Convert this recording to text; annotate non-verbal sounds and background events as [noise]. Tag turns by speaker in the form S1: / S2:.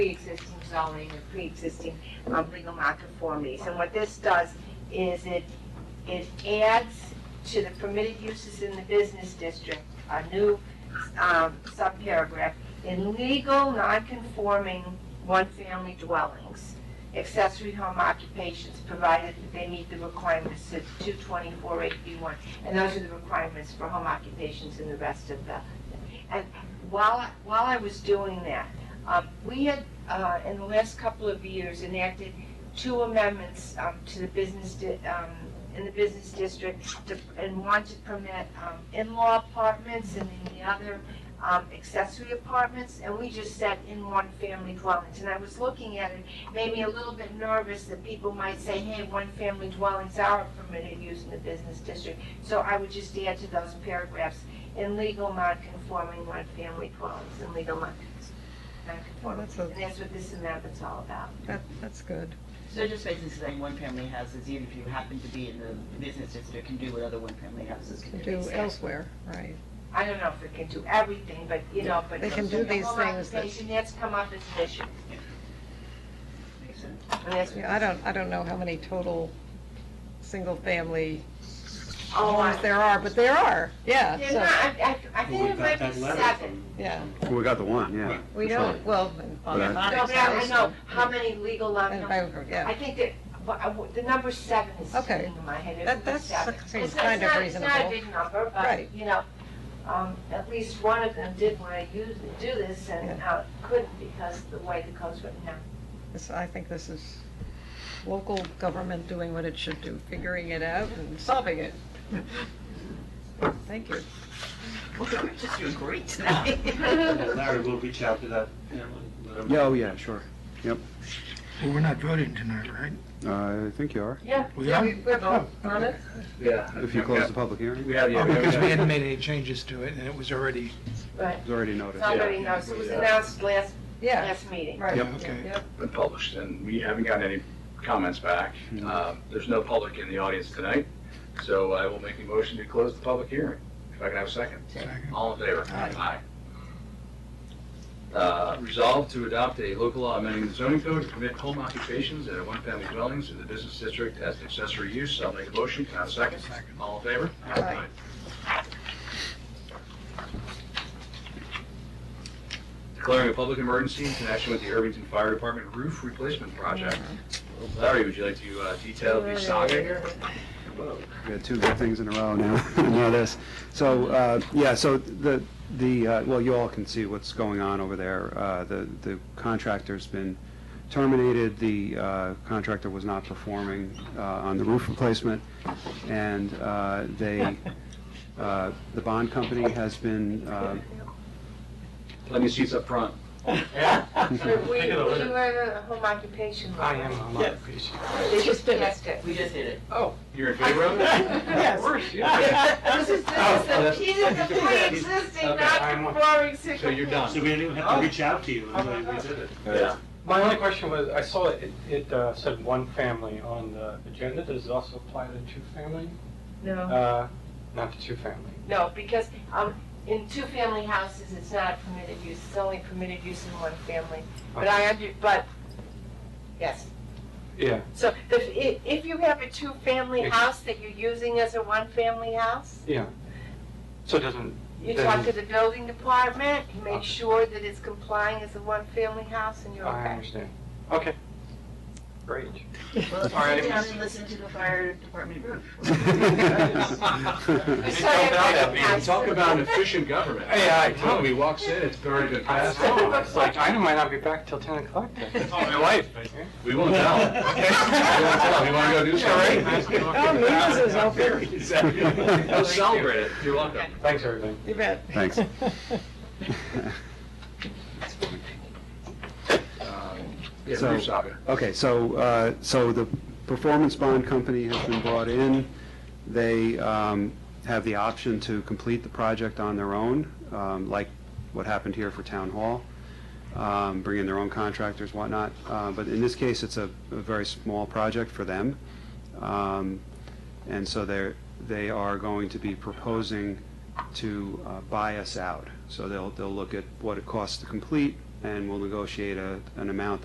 S1: pre-existing zoning or pre-existing um, legal nonconformities. And what this does is it, it adds to the permitted uses in the business district, a new um, subparagraph, in legal nonconforming one-family dwellings, accessory home occupations, provided that they meet the requirements of 224-8B1. And those are the requirements for home occupations and the rest of the, and while, I- while I was doing that, um, we had, uh, in the last couple of years, enacted two amendments um, to the business, di- um, in the business district, to- and one to permit um, in-law apartments, and then the other um, accessory apartments, and we just said in one family dwellings. And I was looking at it, made me a little bit nervous that people might say, hey, one family dwellings are permitted use in the business district. So I would just add to those paragraphs, in legal non-conforming one family dwellings, in legal non-
S2: Well,
S1: non-conforming.
S2: that's a,
S1: And that's what this amendment's all about.
S2: that, that's good.
S3: So just basically saying one family houses, even if you happen to be in the business district, can do what other one family houses
S2: To
S3: can do.
S2: do elsewhere, right.
S1: I don't know if it can do everything, but, you know, but.
S2: They can do these
S1: Home
S2: things that-
S1: occupation, that's come up as an issue.
S3: Makes sense.
S1: And that's-
S2: Yeah, I don't, I don't know how many total single-family
S1: Oh,
S2: homes
S1: I-
S2: there are, but there are, yeah,
S1: Yeah, no,
S2: so,
S1: I, I, I
S4: Well,
S1: think
S4: we
S1: it might
S4: got
S1: be
S4: that letter
S1: seven.
S4: from,
S2: yeah.
S5: We got the one, yeah.
S4: Right.
S2: We don't, well,
S3: On the
S5: But I-
S1: No, but
S3: Monarch's
S1: I I
S3: house.
S1: know how many legal
S2: and
S1: non,
S2: by-
S1: I
S2: yeah,
S1: think that, but I w- the number seven is
S2: Okay.
S1: sticking in my head. It
S2: That-
S1: was
S2: that's-
S1: seven.
S2: that seems
S1: It's not-
S2: kind of
S1: it's not-
S2: reasonable.
S1: It's not a big number,
S2: Right.
S1: but, you know, um, at least one of them did want to use, do this and uh, couldn't because the way the code's written
S2: [laughs]
S1: now.
S2: this- I think this is local government doing what it should do, figuring it out and solving it. Thank you.
S3: Well, [laughs] we're just doing great tonight.
S4: and Larry will reach out to that, you know, and let him
S5: Yeah, oh, yeah, sure.
S6: Well, we're not voting tonight, right?
S5: Uh, I think you are,
S1: [laughs] Yeah.
S6: We are?
S1: We're both on it.
S4: Yeah.
S5: if you close the public hearing.
S4: We have,
S6: Oh,
S4: yeah, we
S6: because we
S4: have,
S6: hadn't made any changes to it, and it was already,
S1: Right.
S5: It's already noted.
S1: Somebody knows. It was announced last,
S2: Yeah,
S1: last meeting.
S2: right.
S6: yeah, okay.
S7: been published, and we haven't gotten any comments back. Uh, There's no public in the audience tonight, so I will make a motion to close the public hearing. If I can have a second.
S6: Second.
S7: All in favor?
S6: Aye.
S7: Aye. Uh, Resolved to adopt a local law amending the zoning code to permit home occupations in one-family dwellings in the business district as an accessory use. I'll make a motion. Can I have a second?
S6: Second.
S7: All in favor?
S2: Aye.
S7: Declaring a public emergency in connection with the Irvington Fire Department roof replacement project.
S8: Mm-hmm.
S7: Larry, would you like to uh, detail the saga here?
S5: We had two good things in a row now, [laughs] now this. So, uh, yeah, so the, the, uh, well, you all can see what's going on over there. Uh, The the contractor's been terminated, the uh, contractor was not performing uh, on the roof replacement, and uh, they, uh, the bond company has
S2: [laughs]
S5: been uh, [laughs]
S7: Plenty of seats up front.
S1: So we,
S4: Take it over.
S1: you were the home occupation.
S4: I am, I'm not appreciative.
S1: They just passed it.
S3: We just did it.
S7: You're in favor of it?
S2: Yes.
S7: Of course,
S1: [laughs]
S7: yeah.
S1: This is,
S4: Oh,
S1: this is, the- these are the
S4: [laughs]
S1: pre-existing,
S4: Okay, I'm-
S1: non-conforming
S7: So you're
S1: situations.
S7: done.
S4: So we didn't even have to reach out to you and like, we did it.
S7: Yeah.
S8: My only question was, I saw it, it uh, said one family on the agenda, does it also apply to two family?
S1: No,
S8: Uh, Not to two family.
S1: no, because, um, in two-family houses, it's not permitted use, it's only permitted use in one family. But I, under- but, yes.
S8: Yeah,
S1: So if, if you have a two-family house that you're using as a one-family house,
S8: yeah. So it doesn't,
S1: you talk to the building department, you make sure that it's complying as a one-family house and you're
S8: I
S1: okay.
S8: understand. Okay. Great.
S3: Well,
S7: All right.
S3: sit down and listen to the fire department roof.
S5: [laughs]
S1: It's
S7: Hey, talk about that,
S1: Yeah.
S7: man. Talk about an efficient government.
S8: Hey, I-
S7: I'm telling you, he walks in, it's already been
S8: I [laughs]
S7: passed
S8: know,
S7: on.
S8: it's like, I might not be back till 10 o'clock
S1: [laughs]
S8: then.
S7: Oh, my wife.
S8: Okay.
S7: We won't tell.
S8: [laughs]
S7: We won't tell. We want to go do something.
S2: Oh, Mila's is open.
S7: [laughs] Exactly. Go celebrate it. You're welcome.
S8: Thanks, everybody.
S2: You bet.
S5: Thanks.
S2: [laughs]
S7: Um, Yeah,
S5: So-
S7: roof saga.
S5: Okay, so, uh, so the performance bond company has been brought in. They um, have the option to complete the project on their own, um, like what happened here for Town Hall, um, bring in their own contractors, whatnot. Uh, But in this case, it's a a very small project for them. Um, And so they're, they are going to be proposing to uh, buy us out. So they'll, they'll look at what it costs to complete, and we'll negotiate a, an amount